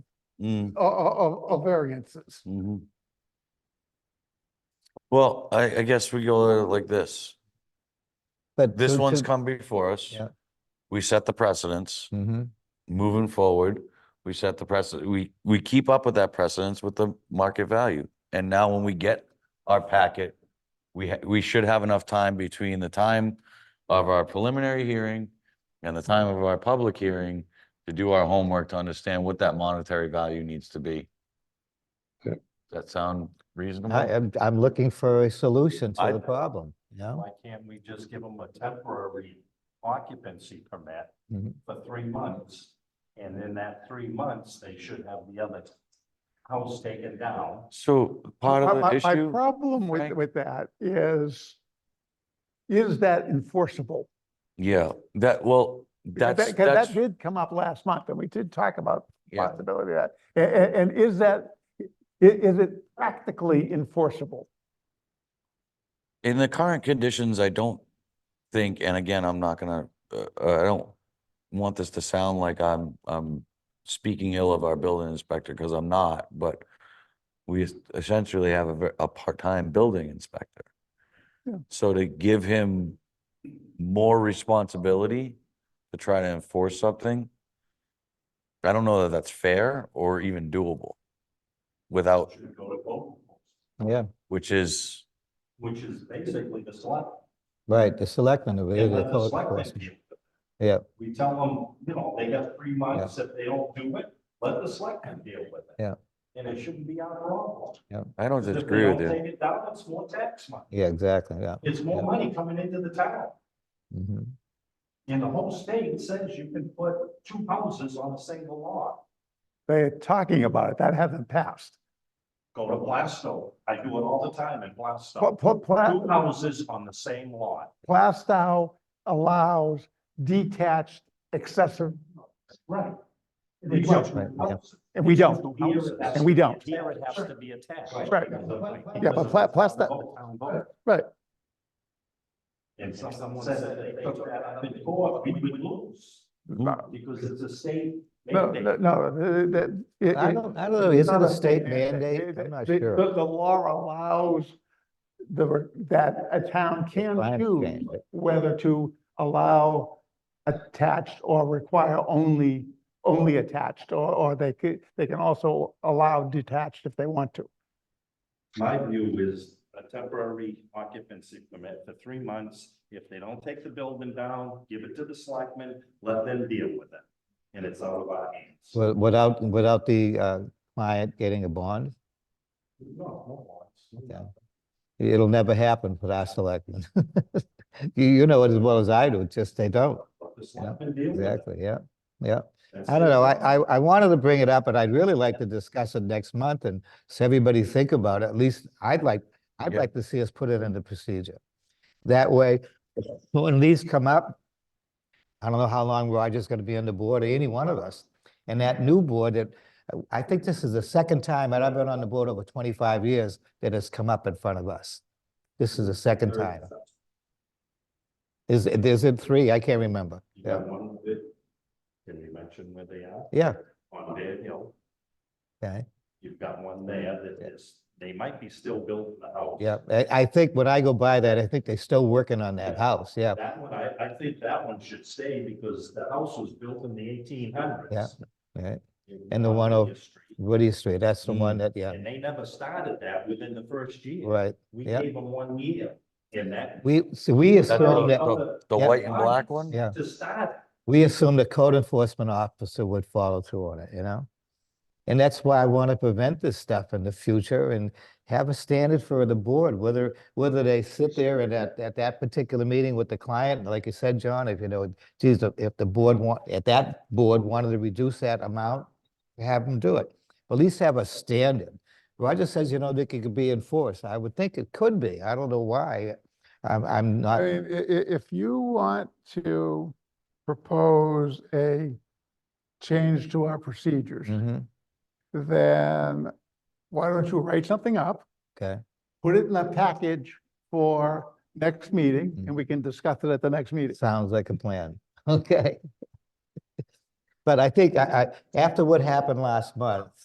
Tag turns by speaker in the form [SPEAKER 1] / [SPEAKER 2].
[SPEAKER 1] Mm,
[SPEAKER 2] of, of, of variances.
[SPEAKER 1] mhm. Well, I, I guess we go at it like this.
[SPEAKER 3] But
[SPEAKER 1] This
[SPEAKER 3] to-
[SPEAKER 1] one's
[SPEAKER 3] to-
[SPEAKER 1] come before us.
[SPEAKER 3] Yeah.
[SPEAKER 1] We set the precedence.
[SPEAKER 3] Mhm.
[SPEAKER 1] Moving forward, we set the precedent, we, we keep up with that precedence with the market value. And now when we get our packet, we, ha- we should have enough time between the time of our preliminary hearing and the time of our public hearing to do our homework to understand what that monetary value needs to be.
[SPEAKER 4] Okay.
[SPEAKER 1] Does that sound reasonable?
[SPEAKER 3] I, I'm, I'm looking for a solution
[SPEAKER 5] I-
[SPEAKER 3] to the problem, you know?
[SPEAKER 5] Why can't we just give them a temporary occupancy permit
[SPEAKER 3] Mhm.
[SPEAKER 5] for three months? And in that three months, they should have the other house taken down.
[SPEAKER 1] So part
[SPEAKER 2] My-
[SPEAKER 1] of the
[SPEAKER 2] my- My
[SPEAKER 1] issue,
[SPEAKER 2] problem with,
[SPEAKER 1] Frank?
[SPEAKER 2] with that is, is that enforceable?
[SPEAKER 1] yeah, that, well,
[SPEAKER 2] Because
[SPEAKER 1] that's,
[SPEAKER 2] that- 'cause
[SPEAKER 1] that's,
[SPEAKER 2] That did come up last month and we did talk about the
[SPEAKER 1] yeah.
[SPEAKER 2] possibility of that. A- a- And, is that, i- is it practically enforceable?
[SPEAKER 1] In the current conditions, I don't think, and again, I'm not gonna, uh, uh, I don't want this to sound like I'm, I'm speaking ill of our building inspector, because I'm not, but we es- essentially have a, ver- a part-time building inspector.
[SPEAKER 2] Yeah.
[SPEAKER 1] So to give him more responsibility to try to enforce something, I don't know that that's fair or even doable without,
[SPEAKER 5] Should go to vote,
[SPEAKER 3] Yeah,
[SPEAKER 1] which is,
[SPEAKER 5] which is basically the select.
[SPEAKER 3] right, the selectmen are really
[SPEAKER 5] and
[SPEAKER 3] the
[SPEAKER 5] let the
[SPEAKER 3] code
[SPEAKER 5] selectmen
[SPEAKER 3] enforcement.
[SPEAKER 5] deal with it.
[SPEAKER 3] Yeah,
[SPEAKER 5] We tell them, you know, they got three months. If they don't do it, let the selectmen deal with it.
[SPEAKER 3] Yeah.
[SPEAKER 5] And it shouldn't be our problem.
[SPEAKER 1] I don't
[SPEAKER 5] If they
[SPEAKER 1] disagree with
[SPEAKER 5] don't
[SPEAKER 1] you.
[SPEAKER 5] Take it down, it's more tax money.
[SPEAKER 3] yeah, exactly, yeah.
[SPEAKER 5] It's more
[SPEAKER 3] Yeah.
[SPEAKER 5] money coming into the town.
[SPEAKER 3] Mhm.
[SPEAKER 5] And the whole state says you can put two houses on a single lot.
[SPEAKER 2] They're talking about it. That hasn't passed.
[SPEAKER 5] Go to Blastow. I do it all the time in
[SPEAKER 2] Pla-
[SPEAKER 5] Blastow.
[SPEAKER 2] pla- pla-
[SPEAKER 5] Two houses on the same lot.
[SPEAKER 2] Plastow allows detached accessory,
[SPEAKER 5] Right.
[SPEAKER 2] We don't,
[SPEAKER 3] right, yeah.
[SPEAKER 2] and we don't. and we don't.
[SPEAKER 5] Here it has to be attached.
[SPEAKER 2] Right.
[SPEAKER 5] Yeah,
[SPEAKER 2] but Pla- Plastow- Right.
[SPEAKER 5] And someone says that they took that out of the court, we would lose
[SPEAKER 2] No,
[SPEAKER 5] because it's a state
[SPEAKER 2] no, no,
[SPEAKER 5] mandate.
[SPEAKER 2] no, uh, that. it-
[SPEAKER 3] I
[SPEAKER 2] it-
[SPEAKER 3] don't, I don't know,
[SPEAKER 2] it's
[SPEAKER 3] is it
[SPEAKER 2] not
[SPEAKER 3] a state
[SPEAKER 2] It-
[SPEAKER 3] mandate? I'm not
[SPEAKER 2] the-
[SPEAKER 3] sure.
[SPEAKER 2] The, the law allows the, re- that a town
[SPEAKER 3] I
[SPEAKER 2] can choose
[SPEAKER 3] understand, but-
[SPEAKER 2] whether to allow attached or require only, only attached, or, or they could, they can also allow detached if they want to.
[SPEAKER 5] My view is a temporary occupancy permit for three months. If they don't take the building down, give it to the selectmen, let them deal with it. And it's out of our hands.
[SPEAKER 3] Wi- Without, without the uh, client getting a bond,
[SPEAKER 5] No, no, it's-
[SPEAKER 3] Yeah. it'll never happen for our selectmen. You, you know it as well as I do, it's just they don't,
[SPEAKER 5] Let The selectmen deal with it.
[SPEAKER 3] exactly, yeah, yeah.
[SPEAKER 5] That's
[SPEAKER 3] I don't know,
[SPEAKER 5] it.
[SPEAKER 3] I, I, I wanted to bring it up, and I'd really like to discuss it next month and so everybody think about it, at least I'd like, I'd
[SPEAKER 1] Yeah.
[SPEAKER 3] like to see us put it into procedure. That way, when these come up, I don't know how long Roger's gonna be on the board, or any one of us, and that new board that, I think this is the second time, and I've been on the board over twenty-five years, that has come up in front of us. This is the second time. Is, is it three? I can't remember.
[SPEAKER 5] You got one that- Can you mention where they are?
[SPEAKER 3] Yeah,
[SPEAKER 5] On Bear Hill,
[SPEAKER 3] okay.
[SPEAKER 5] you've got one there that is, they might be still building the house.
[SPEAKER 3] Yeah, I, I think when I go by that, I think they're still working on that house, yeah.
[SPEAKER 5] That one, I, I think that one should stay because the house was built in the eighteen hundreds.
[SPEAKER 3] Yeah. right. And the one over- Woody Street, that's the one that, yeah,
[SPEAKER 5] And they never started that within the first year.
[SPEAKER 3] right.
[SPEAKER 5] We
[SPEAKER 3] Mm. yeah.
[SPEAKER 5] gave them one year and that.
[SPEAKER 3] We, so we
[SPEAKER 1] That's the,
[SPEAKER 3] assume that,
[SPEAKER 1] the- the white and black one?
[SPEAKER 3] yeah,
[SPEAKER 5] To start.
[SPEAKER 3] we assume the code enforcement officer would follow through on it, you know? And that's why I want to prevent this stuff in the future and have a standard for the board, whether, whether they sit there and at, at that particular meeting with the client, like you said, John, if you know, geez, if- if the board want, if that board wanted to reduce that amount, have them do it. At least have a standard. Roger says, you know, that it could be enforced. I would think it could be. I don't know why. I'm, I'm
[SPEAKER 2] I
[SPEAKER 3] not,
[SPEAKER 2] mean, i- i- if you want to propose a change to our procedures,
[SPEAKER 3] Mhm,
[SPEAKER 2] then why don't you write something up?
[SPEAKER 3] okay,
[SPEAKER 2] put it in a package for next meeting,
[SPEAKER 3] Mm.
[SPEAKER 2] and we can discuss it at the next meeting.
[SPEAKER 3] sounds like a plan. Okay. But I think I, I, after what happened last month,